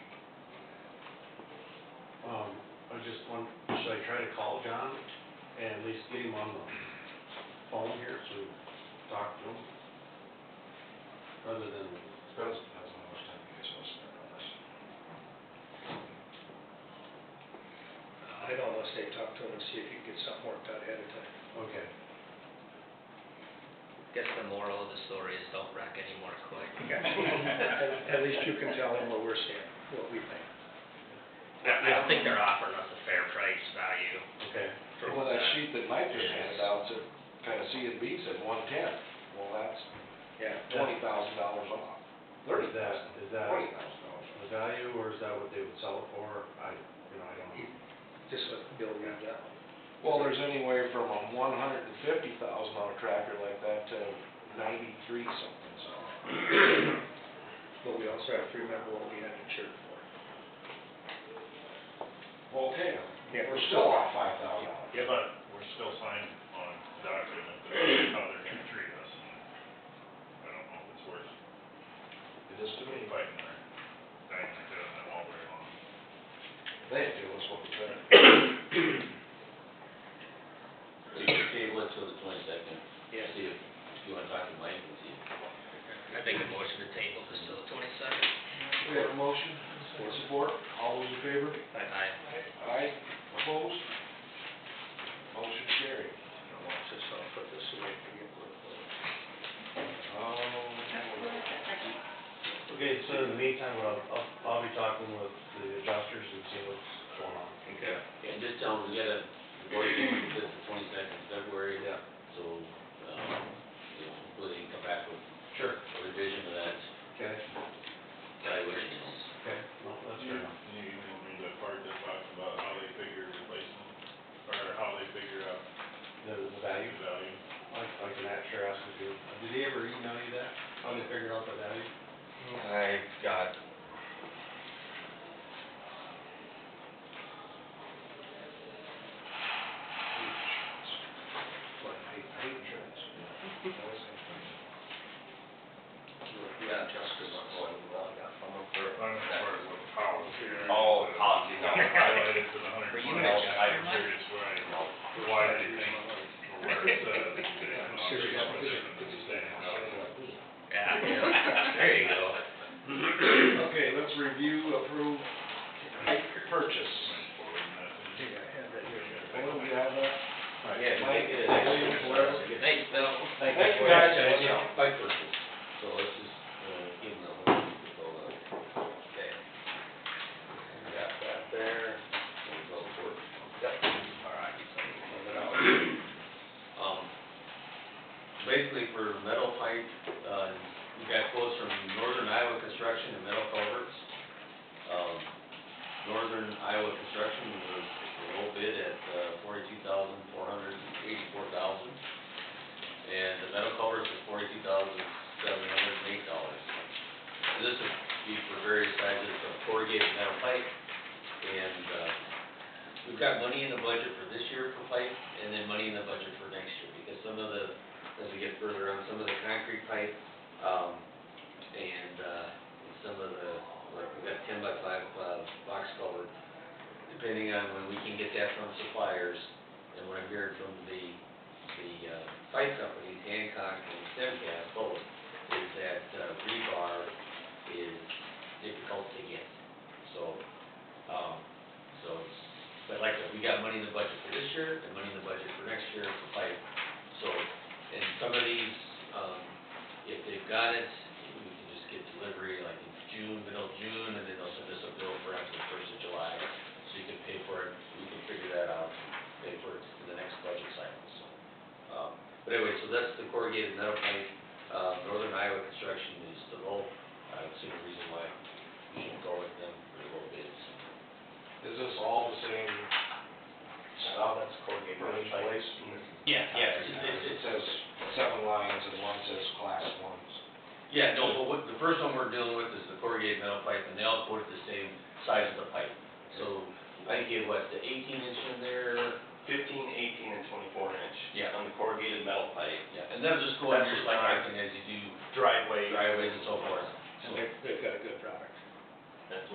I'm Um, just wondering, should I try to call John and at least get him on the phone here so we talk to him? Rather than, Depends, depends on how much time you guys want to spend on this. I'd almost say talk to him and see if you can get something worked out ahead of time. okay, Guess the moral of the story is don't wreck anymore quick. At at least you can tell him what we're saying, what we think. I I don't think they're offering us a fair price value. okay. for Well, that sheet that Mike just Yes. handed out said, kind of C and B said one ten, well, that's Yeah. twenty thousand dollars off. Or is that, is that Twenty thousand dollars. the value or is that what they would sell it for? I, you know, I don't know. Just let Bill read that one. Well, there's anywhere from a one hundred and fifty thousand on a tractor like that to ninety-three something, so. But we also have to remember what we had insured for. Well, okay, Yeah. we're still off five thousand dollars. Yeah, but we're still signed on a document that how they're gonna treat us, and I don't know if it's worth It is to me, fighting or dying to do that all very long. they do, is what we try to. So you can table it till the twenty-second, Yes. see if, if you wanna talk to Mike and see. if- I think the motion to table is still the twenty-second. We have a motion, for support, all those in favor? I, Aye, opposed? Motion carried. I'll watch this, I'll put this away for you. Um, Okay, so in the meantime, I'll, I'll, I'll be talking with the adjusters and see what's going on. okay. And just tell them Um, we gotta, we're going to this the twenty-second of February, Yeah, so, um, you know, hopefully they can come back with sure, a revision of that okay, evaluation. okay, well, that's fair You, enough. you emailed me the part that talks about how they figure replacement, or how they figure out The, the the value, value. like, like Matt sure asked me to, did he ever email you that? How they figured out the value? I got What, hate, hate insurance? Always hate insurance. You got justice on one, well, I got one. Or, I don't know where it was, how. all policies I highlighted to the hundred For and you, twenty, Mitch. I'm curious where I, why they think, or where it says. that they have an Serious option application. to stay out. Yeah, yeah. there you go. Okay, let's review, approve, purchase. Yeah, I have that here. Well, we have that. Yeah, you Mike, make it a- William, Blair. Thanks, Bill. Thank Thank you you guys. guys, by purchase, so let's just, uh, give them the whole, so, uh, Okay. Got that there. we'll go for it. Yep. All right, you can move it out. Um, basically for metal pipe, uh, we got quotes from Northern Iowa Construction and Metal Culverts. Um, Northern Iowa Construction was the low bid at uh, forty-two thousand, four hundred and eighty-four thousand. And the Metal Culverts was forty-two thousand, seven hundred and eight dollars. This would be for various sizes of corrugated metal pipe and, uh, We've got money in the budget for this year for pipe, and then money in the budget for next year, because some of the, as we get further on, some of the concrete pipe, um, and, uh, and some of the, like, we got ten by five, uh, box culvert, depending on when we can get that from suppliers, and what I'm hearing from the, the, uh, pipe companies, Hancock and Stemcast both, is that uh, rebar is difficult to get, so, um, so it's, but like, I said, we got money in the budget for this year, and money in the budget for next year for pipe. So, and some of these, um, if they've got it, we can just get delivery like in June, middle of June, and then they'll send us a bill for after the first of July, so you can pay for it, we can figure that out, pay for it in the next budget cycle, so. Um, But anyway, so that's the corrugated metal pipe, uh, Northern Iowa Construction is the low, I don't see a reason why you shouldn't go with them for the low bids. Is this all the same stuff? that's corrugated For each metal pipe. place? Yeah, yeah, it's, it's, It it's, says seven lines and one says class ones. Yeah, no, but what, the first one we're dealing with is the corrugated metal pipe, and they all quoted the same size of the pipe. So, I think it was the eighteen inch in there, fifteen, eighteen, and twenty-four inch. Yeah. On the corrugated metal pipe, yeah, and they'll just go That's in just just like fine. acting as you do driveway. driveways and so forth. And they've, they've got a good product. That's